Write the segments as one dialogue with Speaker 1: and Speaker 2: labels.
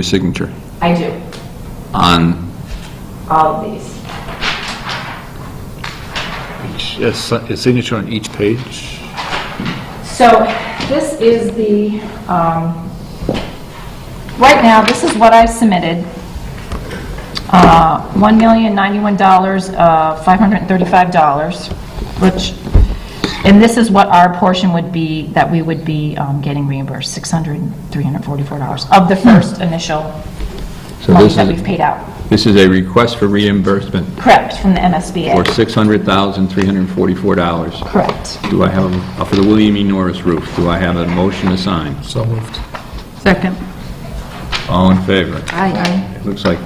Speaker 1: your signature
Speaker 2: I do,
Speaker 1: on,
Speaker 2: all of these.
Speaker 3: Yes, a signature on each page?
Speaker 2: So this is the, um, right now, this is what I've submitted. Uh, $1,091, uh, $535, which, and this is what our portion would be, that we would be um, getting reimbursed, $600,344 of the first initial
Speaker 1: So
Speaker 2: money
Speaker 1: Hmm. this
Speaker 2: that
Speaker 1: is-
Speaker 2: we've paid out.
Speaker 1: this is a request for reimbursement
Speaker 2: Correct, from the
Speaker 1: for
Speaker 2: MSBA.
Speaker 1: $600,344.
Speaker 2: Correct.
Speaker 1: Do I have, a- for the William E. Norris roof, do I have a motion to sign?
Speaker 3: So moved.
Speaker 4: Second.
Speaker 1: All in favor?
Speaker 4: Aye.
Speaker 1: It looks like,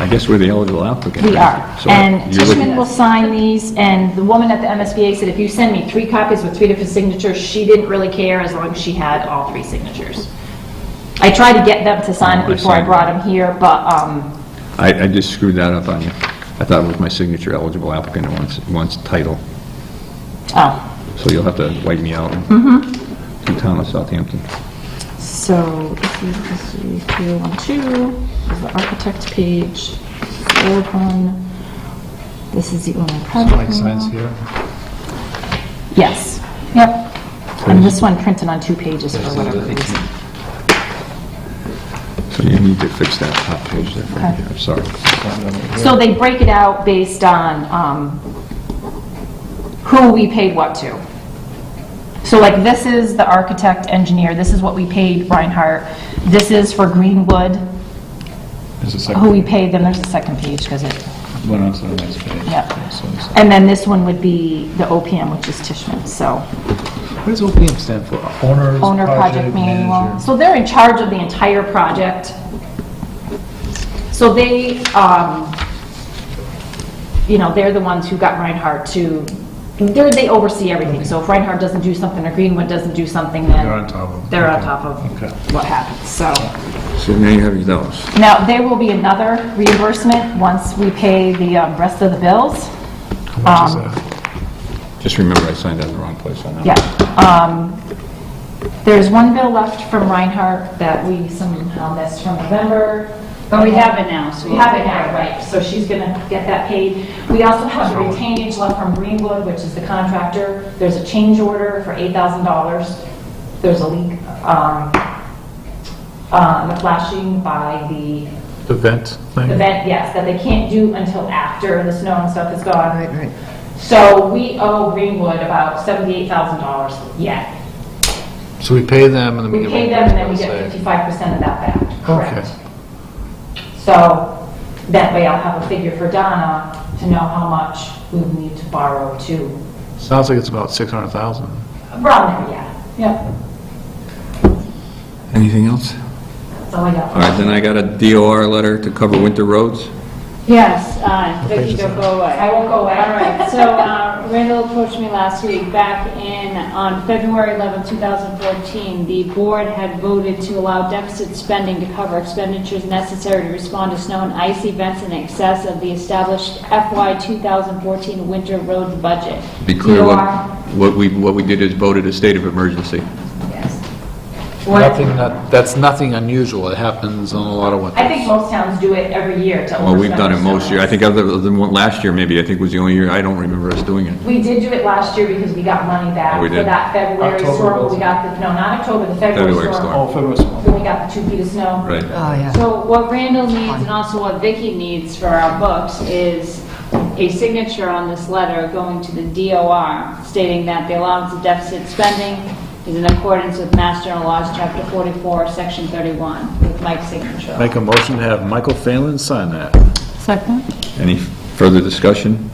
Speaker 1: I guess we're the eligible applicant.
Speaker 2: We
Speaker 1: right?
Speaker 2: are.
Speaker 1: So
Speaker 2: And
Speaker 1: you're looking-
Speaker 2: Tishman will sign these, and the woman at the MSBA said, if you send me three copies with three different signatures, she didn't really care as long as she had all three signatures. I tried to get them to sign
Speaker 1: Oh, I
Speaker 2: it before I
Speaker 1: see.
Speaker 2: brought them here, but, um,
Speaker 1: I, I just screwed that up on you. I thought it was my signature eligible applicant, it wants, it wants title.
Speaker 2: oh,
Speaker 1: So you'll have to wipe me out. Mm-hmm. To town of Southampton.
Speaker 4: So, this is, this is 312, this is the architect page, third one, this is the owner
Speaker 3: Mike
Speaker 4: project
Speaker 3: signs
Speaker 4: manual.
Speaker 3: here.
Speaker 2: yes, yep. And this one printed on two pages for whatever reason.
Speaker 1: So you need to fix that top page there, Frank.
Speaker 2: Okay.
Speaker 1: I'm sorry.
Speaker 2: So they break it out based on um, who we paid what to. So like, this is the architect, engineer, this is what we paid Reinhardt, this is for Greenwood,
Speaker 3: There's a
Speaker 2: who we
Speaker 3: second
Speaker 2: paid, then there's a second page, because it,
Speaker 3: one on the next page.
Speaker 2: Yep.
Speaker 3: So it's-
Speaker 2: and then this one would be the OPM, which is Tishman, so.
Speaker 3: What does OPM stand for? Owner's
Speaker 2: Owner Project Manual. So they're in charge of the entire project. So they, um, you know, they're the ones who got Reinhardt to, they're, they oversee everything. So if Reinhardt doesn't do something or Greenwood doesn't do something, then.
Speaker 3: They're on top of it.
Speaker 2: They're on
Speaker 3: Okay.
Speaker 2: top
Speaker 3: Okay.
Speaker 2: of what happens, so.
Speaker 1: So now you have those.
Speaker 2: Now, there will be another reimbursement once we pay the um, rest of the bills.
Speaker 3: much is
Speaker 2: Um,
Speaker 3: that?
Speaker 1: Just remember I signed that in the wrong place on that.
Speaker 2: Yeah. um, There's one bill left from Reinhardt that we somehow missed from November.
Speaker 5: But we have it now, so
Speaker 2: We have it now, right, so she's going to get that paid. We also have the retainage left from Greenwood, which is the contractor. There's a change order for $8,000. There's a leak, um, uh, the flashing by the
Speaker 3: The vent thing?
Speaker 2: event, yes, that they can't do until after the snow and stuff is gone.
Speaker 4: Right, right.
Speaker 2: So we owe Greenwood about $78,000 yet.
Speaker 3: So we pay them and then we
Speaker 2: We
Speaker 3: give
Speaker 2: pay them
Speaker 3: them...
Speaker 2: and then we get fifty-five percent of that back, correct?
Speaker 3: Okay.
Speaker 2: So that way I'll have a figure for Donna to know how much we would need to borrow to,
Speaker 3: Sounds like it's about 600,000.
Speaker 2: around there, yeah, yeah,
Speaker 1: Anything else?
Speaker 2: that's all I got.
Speaker 1: All right, then I got a DOR letter to cover winter roads.
Speaker 5: Yes, uh, Vicki,
Speaker 3: is
Speaker 5: don't go away.
Speaker 2: I won't go away.
Speaker 5: All right, so uh, Randall approached me last week, back in, on February 11, 2014, the board had voted to allow deficit spending to cover expenditures necessary to respond to snow and ice events in excess of the established FY 2014 winter road budget.
Speaker 1: Be clear, what,
Speaker 5: DOR
Speaker 1: what we, what we did is voted a state of emergency.
Speaker 3: Nothing, that- that's nothing unusual. It happens on a lot of winters.
Speaker 2: I think most towns do it every year to overspend.
Speaker 1: Well, we've done it
Speaker 2: their
Speaker 1: most year. I
Speaker 2: salaries.
Speaker 1: think other than one- last year, maybe, I think was the only year, I don't remember us doing it.
Speaker 2: We did do it last year because we got money back
Speaker 1: Oh, we
Speaker 2: for
Speaker 1: did.
Speaker 2: that February
Speaker 3: October
Speaker 2: storm,
Speaker 3: was-
Speaker 2: we got the, no, not October, the February
Speaker 1: February storm.
Speaker 2: storm.
Speaker 3: February
Speaker 2: Then we got the two feet of snow.
Speaker 1: Right.
Speaker 4: Oh, yeah.
Speaker 5: So what Randall needs and also what Vicky needs for our books is a signature on this letter going to the DOR stating that the allowance of deficit spending is in accordance with Mass General Laws, Chapter 44, Section 31, with Mike's signature.
Speaker 3: Make a motion to have Michael Phelan sign that.
Speaker 4: Second?
Speaker 1: Any further discussion?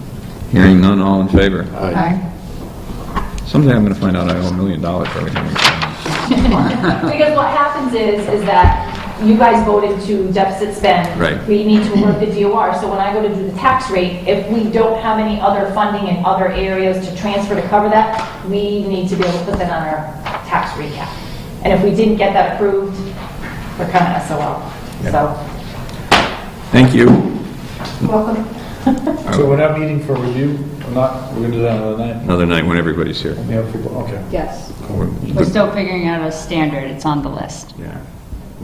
Speaker 1: Hearing none, all in favor?
Speaker 4: Aye.
Speaker 1: Someday I'm gonna find out I owe a million dollars for everything we've done.
Speaker 2: Because what happens is, is that you guys voted to deficit spend.
Speaker 1: Right.
Speaker 2: We need to work the DOR, so when I go to do the tax rate, if we don't have any other funding in other areas to transfer to cover that, we need to be able to put that on our tax recap. And if we didn't get that approved, we're kind of SOL. So,
Speaker 1: Thank you.
Speaker 2: welcome.
Speaker 6: So we're not meeting for review, or not, we're gonna do that another night?
Speaker 1: Another night when everybody's here.
Speaker 6: We have people, okay.
Speaker 5: Yes.
Speaker 1: We're
Speaker 5: We're
Speaker 1: good.
Speaker 5: still figuring out a standard, it's on the list.
Speaker 1: Yeah.